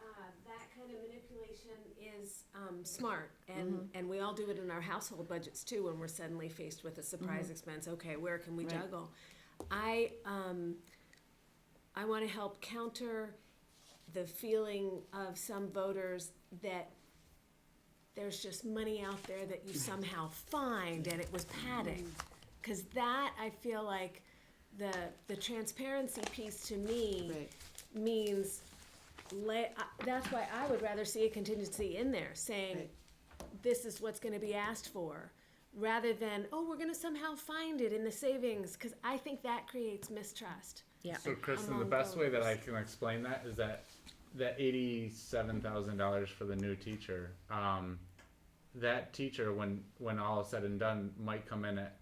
uh, Education is um, smart, and and we all do it in our household budgets too. When we're suddenly faced with a surprise expense, okay, where can we Right. juggle? I um, I want to help counter the feeling of some voters that there's just money out there that you somehow find and it was padding. Mm-hmm. Because that, I feel like the, the transparency piece to me Right. means lay, I- that's why I would rather see a contingency in there saying, Right. this is what's gonna be asked for, rather than, oh, we're gonna somehow find it in the savings, because I think that creates mistrust. Yeah. So Kristen, the among best way that I those. can explain that is that that eighty-seven thousand dollars for the new teacher, um, that teacher, when, when all is said and done, might come in at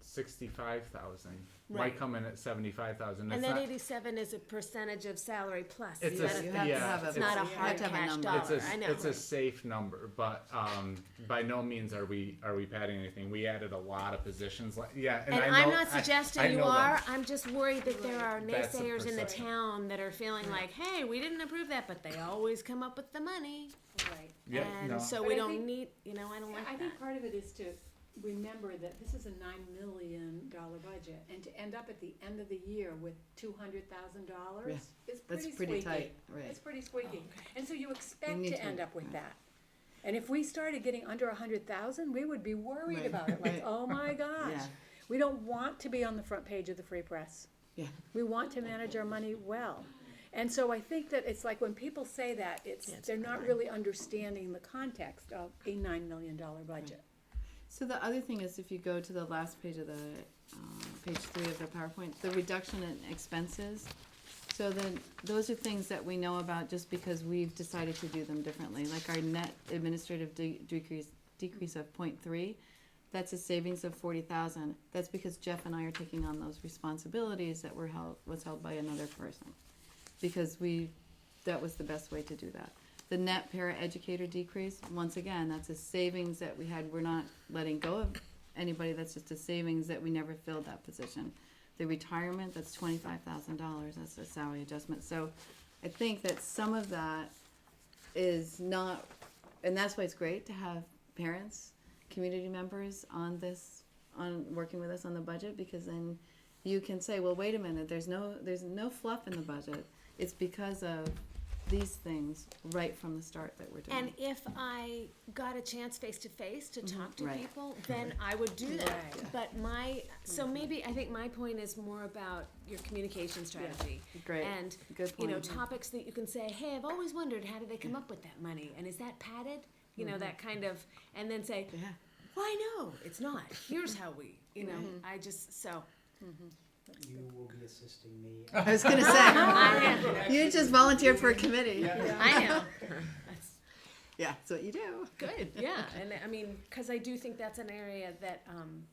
sixty-five thousand. Right. Might come in at seventy-five thousand. And then eighty-seven is a percentage of salary plus. It's You a- gotta You think have to yeah, have a- It's not a you have hard to have a cash number. dollar, It's a, I know. it's a safe number, but, um, by no means are we, are we padding anything. We added a lot of positions, like, yeah, and I And know. I'm not I- I suggesting you know are, that. I'm just worried that there are That's a naysayers in the perception. town that are feeling like, hey, we didn't approve that, but they always come up with the money. Right. Yeah, no. And so But we I don't think- need, you know, I don't I like that. think part of it is to remember that this is a nine million dollar budget, and to end up at the end of the year with two hundred thousand dollars is That's pretty pretty squeaky. tight, right. Oh, It's pretty squeaky, and so you expect need to to- end up with right. that. And if we started getting under a hundred thousand, we would be worried Right. about it, like, Right. oh my gosh. Yeah. We don't want to be on the front page of the Free Press. Yeah. We want to manage our money well. And so I think that it's like when people say that, it's, it's they're not really understanding the context of a nine million dollar budget. So the other thing is if you go to the last page of the, um, page three of the PowerPoint, the reduction in expenses. So then, those are things that we know about just because we've decided to do them differently, like our net administrative de- decrease, decrease of point three. That's a savings of forty thousand. That's because Jeff and I are taking on those responsibilities that were held, was held by another person. Because we, that was the best way to do that. The net para educator decrease, once again, that's a savings that we had, we're not letting go of anybody, that's just a savings that we never filled that position. The retirement, that's twenty-five thousand dollars, that's a salary adjustment, so I think that some of that is not, and that's why it's great to have parents, community members on this, on working with us on the budget, because then you can say, well, wait a minute, there's no, there's no fluff in the budget. It's because of these things right from the start that we're doing. And if I got a chance face to face to talk to Right. people, then I would do that. Mm-hmm, Right. Mm-hmm. But my, so maybe, I think my point is more about your communication strategy. Great. And, Good you know, point. topics that you can say, hey, I've always wondered, how did they come up with that money? And is that padded? You know, that kind of, and then say, Mm-hmm. Yeah. why no, it's not. Here's how we, you know, Mm-hmm. I just, so. You will be assisting me. I was gonna say, you just volunteered for a committee. I know. Yeah, that's what you do. Good, yeah, and I mean, because I do think that's an area that um,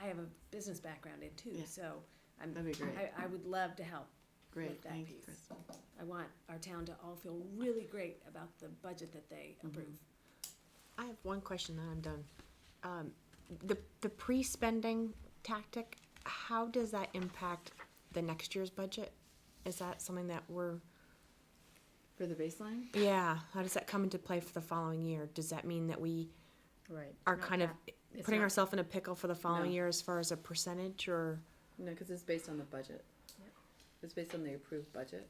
I have a business background in too, Yeah. so I'm, That'd be great. I, I would love to help. Great, Like that thank you, piece. Kristen. I want our town to all feel really great about the budget that they Mm-hmm. approve. I have one question, then I'm done. Um, the, the pre-spending tactic, how does that impact the next year's budget? Is that something that we're, For the baseline? yeah, how does that come into play for the following year? Does that mean that we Right. are kind of it's putting not- ourselves in a pickle for the following No. year as far as a percentage or? No, because it's based on the budget. Yeah. It's based on the approved budget.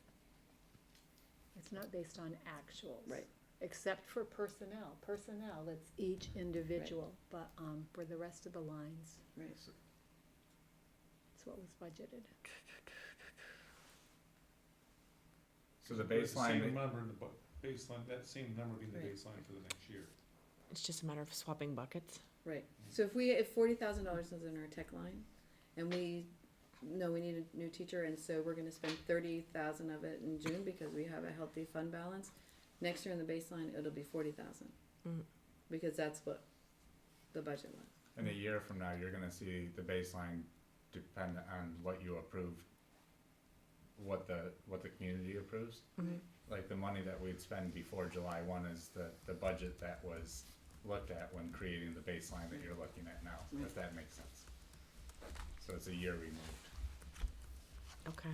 It's not based on actuals. Right. Except for personnel. Personnel, it's each individual, but, um, for the rest of the lines, Right. it's what was budgeted. So the But it's baseline, Same number in the bu- baseline, that same number being the Right. baseline for the next year. It's just a matter of swapping buckets? Right, so if we, if forty thousand dollars is in our tech line, and we know we need a new teacher, and so we're gonna spend thirty thousand of it in June because we have a healthy fund balance, next year in the baseline, it'll be forty thousand. Mm. Because that's what the budget was. In a year from now, you're gonna see the baseline depend on what you approve, what the, what the community approves. Like the money that we'd spend before July one is the, the budget that was looked at when creating the baseline that you're looking at now, if that makes sense. So it's a year removed. Okay.